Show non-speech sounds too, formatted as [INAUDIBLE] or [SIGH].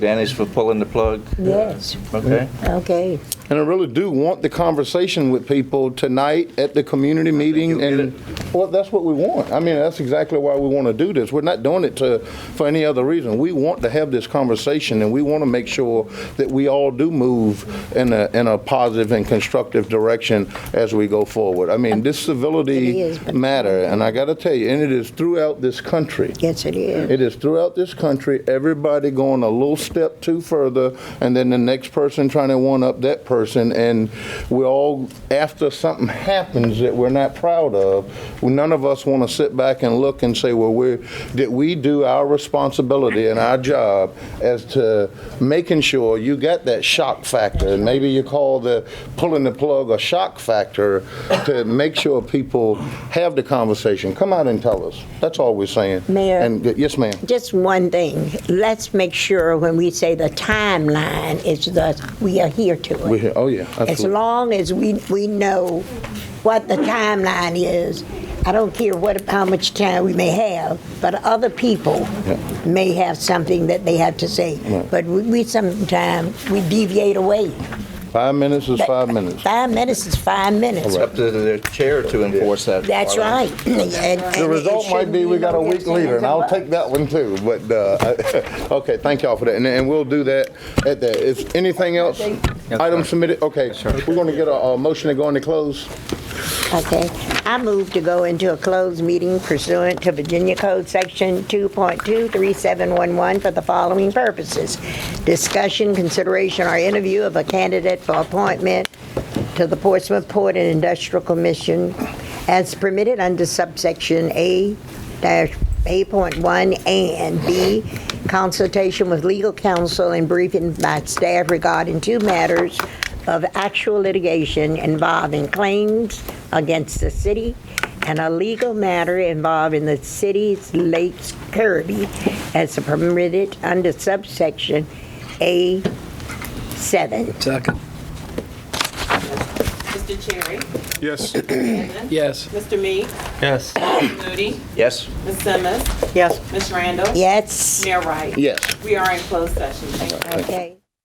advantage for pulling the plug? Yes. Okay. Okay. And I really do want the conversation with people tonight at the community meeting, you'll get and, well, that's what we want. I mean, that's exactly why we want to do this. We're not doing it to, for any other reason. We want to have this conversation, and we want to make sure that we all do move in a, in a positive and constructive direction as we go forward. I mean, this It civility is, but- matter, and I got to tell you, and it is throughout this country. Yes, it is. It is throughout this country, everybody going a little step too further, and then the next person trying to one up that person, and we're all, after something happens that we're not proud of, none of us want to sit back and look and say, well, we're, did we do our responsibility and our job as to making sure you got that shock factor? And maybe you call the pulling the plug a shock factor to make sure people have the conversation. Come out and tell us. That's all we're saying. Mayor. And Yes, ma'am. Just one thing. Let's make sure when we say the timeline is the, we adhere to We it. hear, oh, yeah, As absolutely. long as we, we know what the timeline is, I don't care what, how much time we may have, but other people Yeah. may have something that they have to say. But we- we sometimes, we deviate away. Five minutes is five minutes. Five minutes is five minutes. It's up to the chair to enforce that. That's right. [LAUGHS] And- and The it result might shouldn't be we got no a weak ifs, ands, leader, and I'll buts. take that one too, but, uh, [LAUGHS] okay, thank y'all for that, and, and we'll do that at that. Is anything else? Item submitted, okay. We're gonna get a, a motion to go into close. Okay. I move to go into a closed meeting pursuant to Virginia Code Section 2.23711 for the following purposes. Discussion, consideration, or interview of a candidate for appointment to the Portsmouth Port and Industrial Commission as permitted under subsection A dash 8.1 and B, consultation with legal counsel and briefing by staff regarding two matters of actual litigation involving claims against the city and a legal matter involving the city's Lake Kirby as permitted under subsection A7. Second. Mr. Cherry? Yes. Yes. Mr. Meeks? Yes. Ms. Moody? Yes? Ms. Simmons? Yes. Ms. Randall? Yes, Mayor Wright? Yes. We are in closed session. Thank you. okay.